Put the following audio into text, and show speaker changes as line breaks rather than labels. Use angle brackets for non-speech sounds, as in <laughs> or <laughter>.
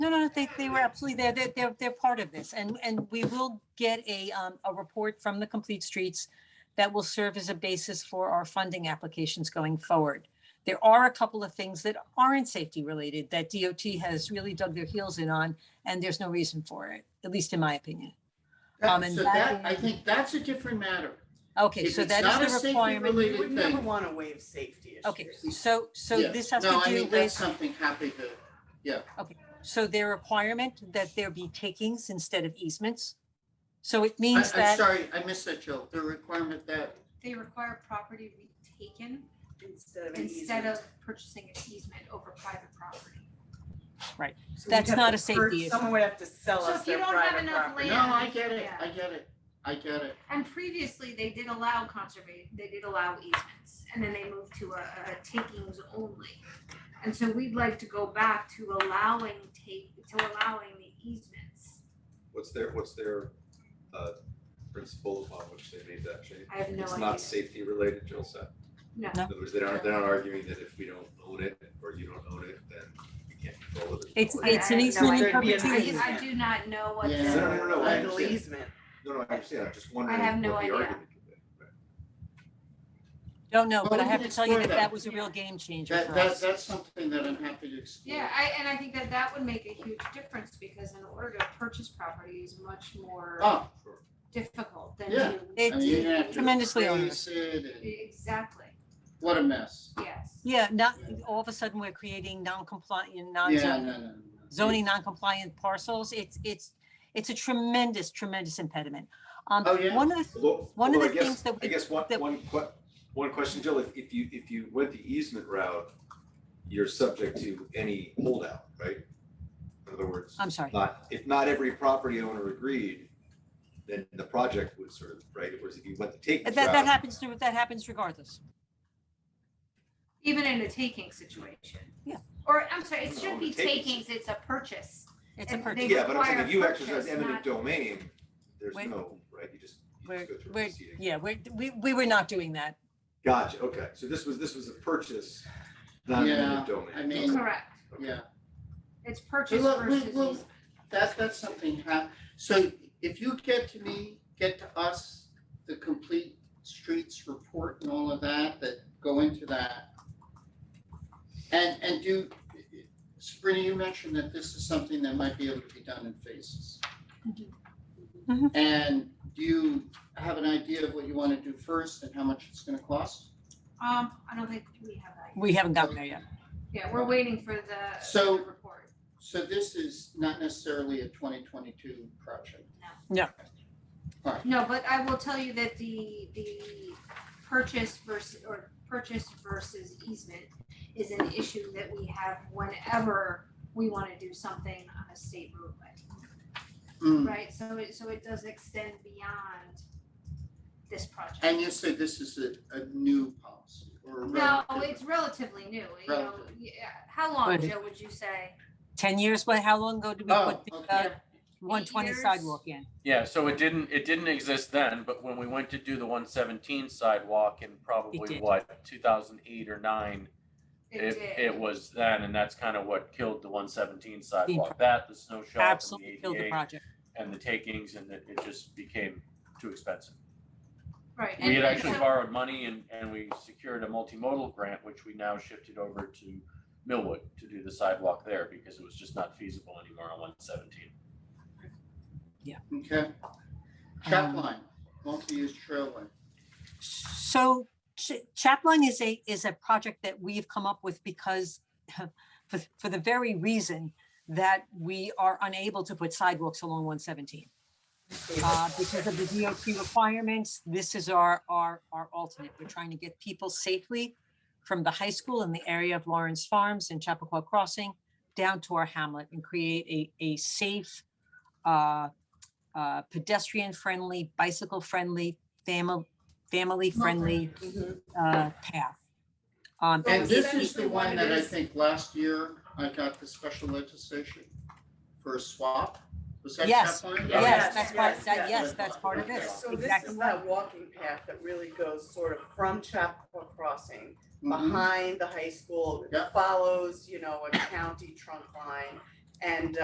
that they, they were absolutely there. They're, they're, they're part of this. And, and we will get a, um, a report from the Complete Streets that will serve as a basis for our funding applications going forward. There are a couple of things that aren't safety related that DOT has really dug their heels in on, and there's no reason for it, at least in my opinion. Um,
That-
and
So
that
that, I
is-
think that's a different matter.
Okay,
If
so
it's
that
not a
is the
safety
requirement.
related
We would
thing-
never want to waive safety issues.
Okay, so, so
Yeah.
this has to
No, I
do
mean, that's
with,
something happy to,
so their requirement that there be takings instead of easements. So it
I, I'm
means that,
sorry, I missed that, Jill, the requirement that,
They require property to be taken
Instead of an
instead
easement.
of purchasing an easement over private property.
So we'd
that's
have
not
to
a safety
purge-
issue.
Someone would have to sell
So
us
if you
their
don't have
private
enough
property.
no, I get it,
Oh, Yeah.
I get it, I get it.
And previously, they did allow conservation, they did allow easements, and then they moved to a, a takings only. And so we'd like to go back to allowing take, to allowing the easements.
What's their, what's their uh principle upon which they made that change?
I have no idea.
It's not safety related, Jill said.
No.
No.
In other words, they aren't, they're not arguing that if we don't own it or you don't own it, then we can't control it.
it's,
no way.
it's an
I- I-
easement in
no, I-
I,
perpetuity.
I do not know what the.
Yeah.
No, no, no, I
Legal
understand.
easement.
No, no, I understand, I'm just wondering
I have
what the
no idea.
argument could be. Right.
Don't know, but
Well,
I
we
have
can
to tell you
explore
that
that.
that was a real
Yeah.
game changer
That,
for
that,
us.
that's something that I'm happy to explore.
Yeah, I, and I think that that would make a huge difference, because in order to purchase property is much more
Oh,
difficult than
Yeah.
to.
I mean, you have
It's
to
tremendously onerous.
trace it and-
Exactly,
what a mess.
yes.
Yeah, not, all of a sudden, we're creating non-compliant,
Yeah,
non-zoning,
no, no, no. no.
zoning non-compliant parcels. It's, it's, it's a tremendous, tremendous impediment. Um,
Oh, yeah.
one of the,
Although,
One of
although I
the
guess-
things that we-
I guess one,
that-
one que- one question, Jill, if, if you, if you went the easement route, you're subject to any holdout, right? In other words,
I'm sorry,
not, if not every property owner agreed, then the project would sort of, right, whereas if you went the
Uh, that,
takings
that
route,
happens, to- that happens regardless.
Even in a taking situation.
Yeah.
Or, I'm sorry, it
No,
shouldn't be
takings.
takings, it's a purchase.
It's a
And
purchase.
they
yeah, but I'm saying
require
if you exercise
purchase,
eminent
not-
domain, there's
Wait.
no, right, you just, you
We're,
just go through a
we're,
proceeding.
yeah, we're, we, we were not doing that.
Gotcha, okay, so this was, this was a purchase, not
Yeah,
eminent domain.
I mean-
Correct,
Yeah,
it's purchase
look, we-
versus
we'll-
easement.
that, that's something hap, so if you get to me, get to us, the complete streets report and all of that, that go into that. And, and do, Sabrina, you mentioned that this is something that might be able to be done in phases.
Mhm.
Mhm.
And do you have an idea of what you wanna do first and how much it's gonna cost?
Um, I don't think we have that. yet.
We haven't gotten there yet.
Yeah, we're waiting for the.
So-
the Report.
So this is not necessarily a twenty twenty-two project.
No, but I will tell you that the, the purchase versus, or purchase versus easement is an issue that we have whenever we wanna do something on a state roadway,
Hmm.
right? So it, so it does extend beyond this project.
And you said this is a, a new policy or a
No,
relatively-
it's relatively new, you know,
Relatively.
yeah, how long,
Right.
Joe, would you say?
Ten years, but how long ago did we
Oh,
put the,
okay.
uh, one twenty
years?
sidewalk in?
Yeah, so it didn't, it didn't exist then, but when we went to do the one seventeen sidewalk in probably
did.
what, two thousand eight or nine?
It
It,
did.
it was then, and that's kind of what killed the one seventeen sidewalk,
pro-
that, the snow shop
Absolutely
and
killed
the
the
ADA
project.
and the takings, and it, it just became too expensive.
Right.
We had
and- and
actually
so-
borrowed money and, and we secured a multimodal grant, which we now shifted over to Millwood to do the sidewalk there, because it was just not feasible anymore on one seventeen.
Okay.
Um,
Trap line, multi-use trail line.
So Ch- Chapline is a, is a project that we've come up with because <laughs> for, for the very reason that we are unable to put sidewalks along one seventeen. Uh, because of the DOT requirements, this is our, our, our alternate. We're trying to get people safely from the high school in the area of Lawrence Farms and Chappaqua Crossing down to our hamlet and create a, a safe, uh, uh, pedestrian-friendly, bicycle-friendly, family, family-friendly, uh, path. Um,
And
And
this
that
is
is
the
the
one
one
that
it
I
is.
think last year I got the special legislation for a swap. Was that
Yes.
trap line?
Yeah.
Yes,
Yes,
that's part,
yes,
that,
yes.
yes, that's part of
Okay,
this,
So this
exactly.
is
right.
that walking path that really goes sort of from Chapel Crossing,
Mhm.
behind the high school,
Yeah.
follows, you know, a county trunk line. And